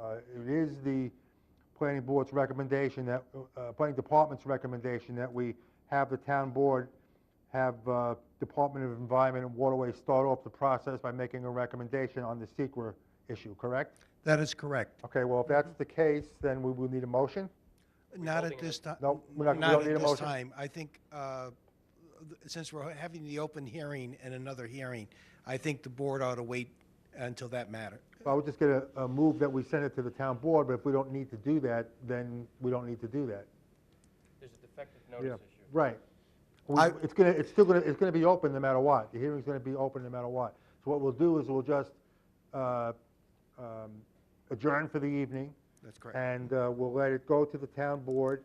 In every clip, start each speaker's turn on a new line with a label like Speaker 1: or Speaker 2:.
Speaker 1: Uh, planning board's recommendation that, uh, planning department's recommendation that we have the town board have uh, Department of Environment and Waterways start off the process by making a recommendation on the secret issue, correct?
Speaker 2: That is correct.
Speaker 1: Okay, well, if that's the case, then we will need a motion.
Speaker 2: Not at this time.
Speaker 1: No, we're not- we don't need a
Speaker 2: at this
Speaker 1: motion.
Speaker 2: time. I think, uh, th- since we're having the open hearing and another hearing, I think the board ought to wait until that matter.
Speaker 1: I would just get a, a move that we send it to the town board, but if we don't need to do that, then we don't need to do that.
Speaker 3: There's a defective
Speaker 1: Oh, Yeah,
Speaker 3: notice issue.
Speaker 1: right. We-
Speaker 2: I-
Speaker 1: It's gonna, it's still gonna, it's gonna be open no matter what. The hearing's gonna be open no matter what. So what we'll do is we'll just uh, um, adjourn for the evening.
Speaker 2: That's correct.
Speaker 1: And uh, we'll let it go to the town board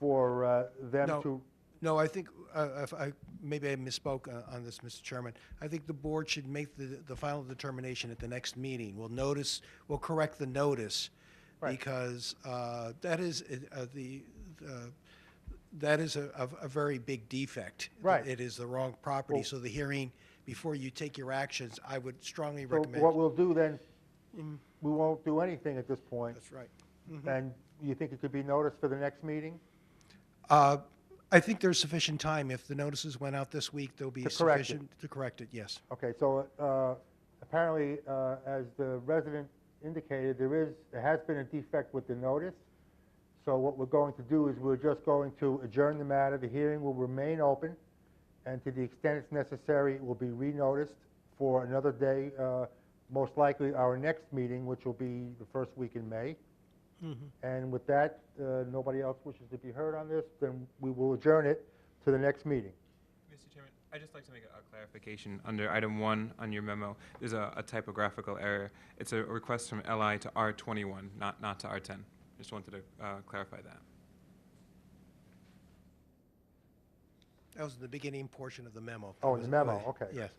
Speaker 1: for uh, them
Speaker 2: No.
Speaker 1: to,
Speaker 2: No, I think, uh, if I, maybe I misspoke uh, on this, Mr. Chairman. I think the board should make the, the final determination at the next meeting. We'll notice, we'll correct the notice, because uh, that is uh, the, uh, that is a, a- a very big defect.
Speaker 1: Right.
Speaker 2: It is the wrong property,
Speaker 1: Well-
Speaker 2: so the hearing, before you take your actions, I would strongly
Speaker 1: so what
Speaker 2: recommend.
Speaker 1: we'll do then, we won't do anything at this point.
Speaker 2: That's Mm-hmm. right.
Speaker 1: And you think it could be noticed for the next meeting?
Speaker 2: Uh, I think there's sufficient time. If the notices went out this week, there'll be
Speaker 1: To correct it.
Speaker 2: sufficient to correct it, yes.
Speaker 1: Okay, so uh, apparently, uh, as the resident indicated, there is, there has been a defect with the notice. So what we're going to do is we're just going to adjourn the matter. The hearing will remain open, and to the extent it's necessary, it will be re-noticed for another day, uh, most likely our next meeting, which will be the first week in May. And with that, uh, nobody else wishes to be heard on this, then we will adjourn it to the next meeting.
Speaker 4: Mr. Chairman, I'd just like to make a a clarification under item one on your memo. There's a a typographical error. It's a request from LI to R21, not, not to R10. Just wanted to uh, clarify that.
Speaker 2: That was the beginning portion of the memo.
Speaker 1: Oh, in the memo, okay.
Speaker 2: Yes.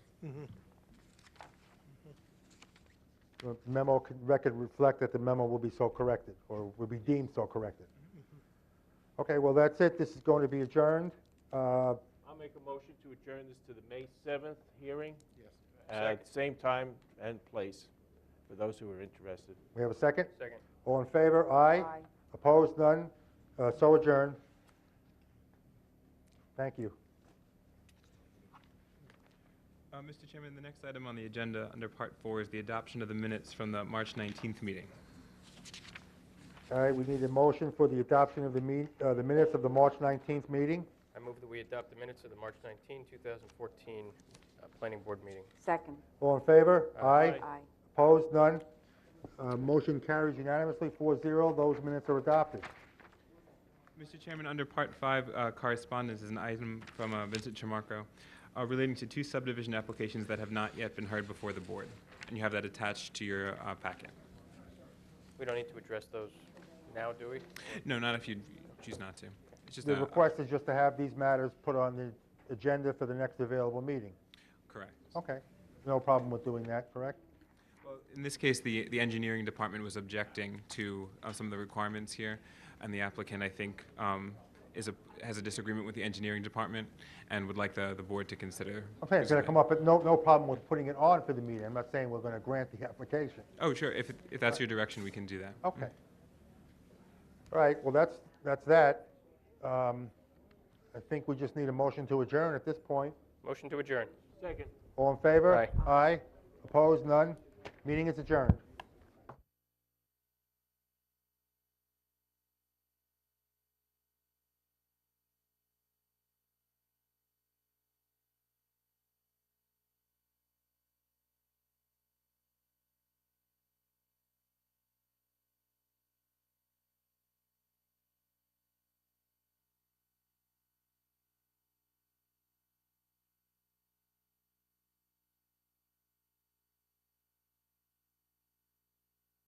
Speaker 1: The memo c- record reflect that the memo will be so corrected, or will be deemed so corrected. Okay, well, that's it, this is going to be adjourned. Uh,
Speaker 3: I'll make a motion to adjourn this to the May 7th hearing. Yes. At the same time and place, for those who are interested.
Speaker 1: We have a second?
Speaker 3: Second.
Speaker 1: All in favor, aye?
Speaker 5: Aye.
Speaker 1: Opposed, none, Uh, so adjourned. Thank you.
Speaker 4: Uh, Mr. Chairman, the next item on the agenda under part four is the adoption of the minutes from the March 19th meeting.
Speaker 1: All right, we need a motion for the adoption of the meet- uh, the minutes of the March 19th meeting.
Speaker 6: I move that we adopt the minutes of the March 19, 2014 uh, Planning Board meeting.
Speaker 5: Second.
Speaker 1: All in favor, aye?
Speaker 3: Aye.
Speaker 5: Aye.
Speaker 1: Opposed, none, Uh, motion carries unanimously, 4-0, those minutes are adopted.
Speaker 4: Mr. Chairman, under Part 5, uh, correspondence is an item from uh, Vincent Chamarko uh, relating to two subdivision applications that have not yet been heard before the board, and you have that attached to your uh, packet.
Speaker 6: We don't need to address those now, do we?
Speaker 4: No, not if you choose not to. It's just
Speaker 1: The
Speaker 4: a-
Speaker 1: request is just to have these matters put on the agenda for the next available meeting.
Speaker 4: Correct.
Speaker 1: Okay, no problem with doing that, correct?
Speaker 4: Well, in this case, the, the engineering department was objecting to uh, some of the requirements here, and the applicant, I think, um, is a, has a disagreement with the engineering department and would like the, the board to consider.
Speaker 1: Okay, it's gonna
Speaker 4: presenting-
Speaker 1: come up, but no, no problem with putting it on for the meeting. I'm not saying we're gonna grant the application.
Speaker 4: Oh, sure, if, it- if that's your direction, we can do that.
Speaker 1: Okay. All right, well, that's, that's that. Um, I think we just need a motion to adjourn at this point.
Speaker 6: Motion to adjourn.
Speaker 3: Second.
Speaker 1: All in favor?
Speaker 6: Aye.
Speaker 1: Aye, opposed, none? Meeting is adjourned.